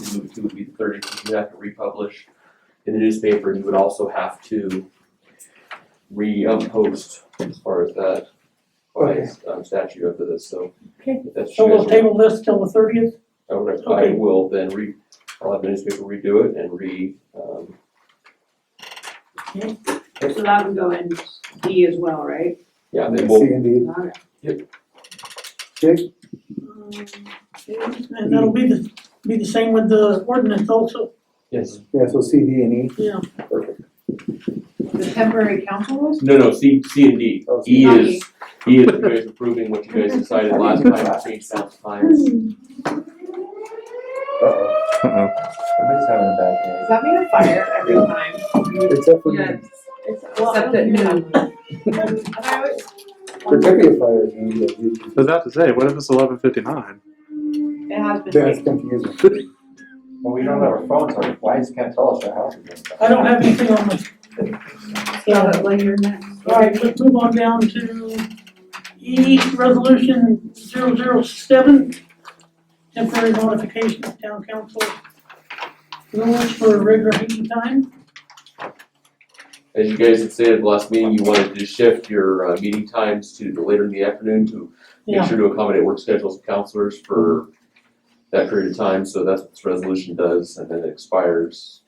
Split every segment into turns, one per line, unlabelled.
to move to would be the thirtieth, because you have to republish in the newspaper, and you would also have to re-post as far as that by
Okay.
um, statute after this, so.
Okay.
if that's
So
you
we'll
guys
table this till the thirtieth?
want, I would, I
okay.
will then re, I'll have the newspaper redo it and re, um,
So that would go in D as well, right?
yeah, then
C
we'll,
and D,
Alright.
Jake,
And that'll be the, be the same with the ordinance also,
yes.
yeah, so C, D and E,
yeah.
perfect.
The temporary council rules?
No, no, C, C and D,
Oh,
E
C.
Not
is, E is you guys approving what you guys decided last time, to change council times.
Uh-oh,
Everybody's having a bad day.
Does that mean a fire every time?
except for
Yeah,
me,
Except at noon. And I always wonder,
particularly fire, you know, that you-
I was about to say, what if it's eleven fifty nine?
it has been
that's
like,
confusing.
Well, we don't have our phones, our wives can't tell us our houses.
I don't have anything on my.
Yeah, but when you're next.
Alright, let's move on down to E, resolution 007, temporary modification of town council rules for regular meeting time.
As you guys had stated last meeting, you wanted to shift your uh, meeting times to the later in the afternoon to make
Yeah.
sure to accommodate work schedules of counselors for that period of time, so that's what this resolution does, and then it expires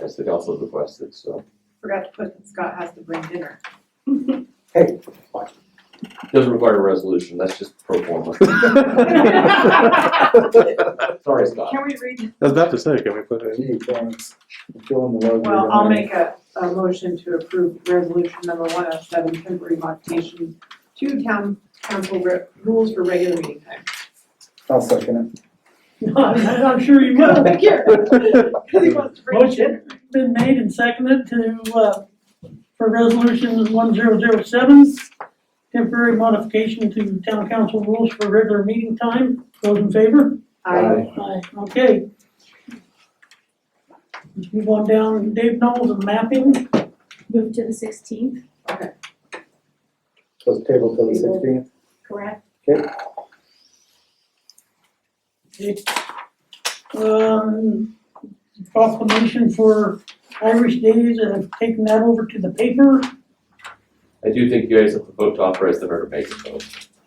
as the council has requested, so.
forgot to put that Scott has to bring dinner.
Doesn't require a resolution, that's just pro forma.
I
Sorry, Scott.
Can we read,
was about to say, can we put it?
Gee, thanks, I'm feeling the love.
well, I'll make a, a motion to approve resolution number one oh seven, temporary modification to town council re- rules for regular meeting time.
I'll second it.
I'm sure you will.
Oh, Thank you. 'Cause he wants to bring dinner.
Motion been made and seconded to, uh, for resolution one zero zero seven, temporary modification to town council rules for regular meeting time. Those in favor?
I,
Aye. Okay. Let's move on down, Dave Knowles and mapping.
Move to the sixteenth,
So it's table till the sixteenth,
correct?
Um, proclamation for Irish Days, and I've taken that over to the paper.
I do think you guys have to vote to authorize the mayor to make it, though.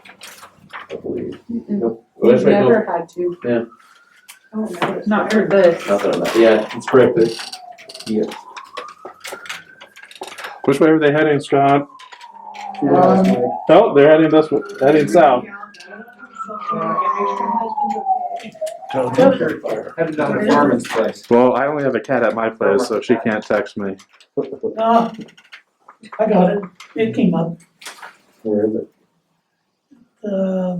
I believe. Nope. Well, that's right, no,
never had to.
Yeah.
Oh, no, it's
Not
not
for this.
not that I'm not- yeah, it's correct, but, yeah,
Which way are they heading, Scott?
Um,
you guys, Mike,
Oh, they're heading this way, heading south.
Headed down to Farman's place.
Well, I only have a cat at my place, so she can't text me.
Uh, I got it, it came up,
where is it?
uh,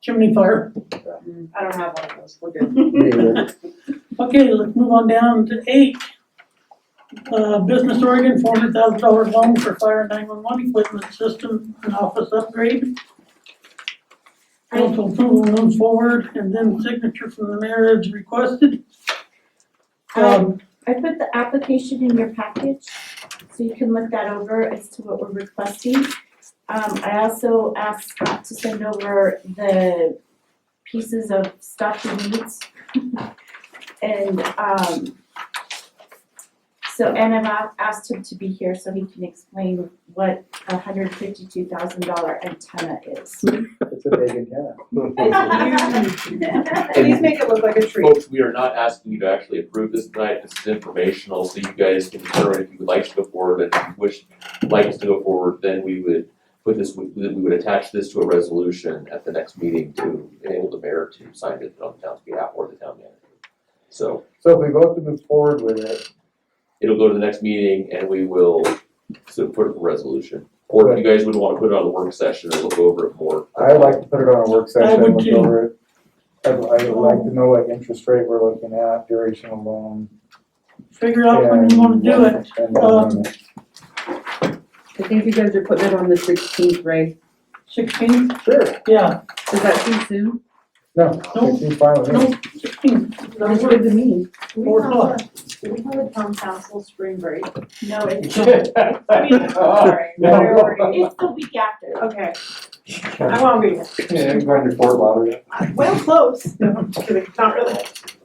chimney fire.
I don't have one of those, we're good.
Yeah,
Okay, let's move on down to eight. Uh, Business Oregon, four hundred thousand dollar loan for fire nine-one-one equipment system and office upgrade. Council approval move forward, and then signature from the mayor is requested. Um,
I put the application in your package, so you can look that over as to what we're requesting. Um, I also asked Scott to send over the pieces of stuff he needs. And, um, so, and I've a- asked him to be here so he can explain what a hundred fifty-two thousand dollar antenna is.
it's a vacant lot.
Please make it look like a tree.
Folks, we are not asking you to actually approve this tonight, this is informational, so you guys can determine if you would like to go forward, and if you wish, like us to go forward, then we would put this, we we would attach this to a resolution at the next meeting to enable the mayor to sign it on the town's behalf or the town manager. So,
So if we vote to move forward with it,
it'll go to the next meeting and we will support the resolution. Or if you guys would wanna put it on the work session and look over it more.
I'd like to put it on a work session,
would
look
too.
over it. I'd, I would like to know what interest rate we're looking at, duration of loan.
figure out when you wanna do it. Uh,
and- um, and-
I think you guys are putting it on the sixteenth, right?
Sixteen,
Sure,
yeah,
Is that too soon?
no,
No.
it seems fine with me.
no, sixteen,
That's what it means.
Do
Four
we have a, do we have a town council spring break?
No, it's,
I mean, sorry,
No.
priority.
it's the week after.
Okay, I won't be here.
Yeah, I'm going to Fort Lauderdale.
Well, close. No, I'm just kidding, not really.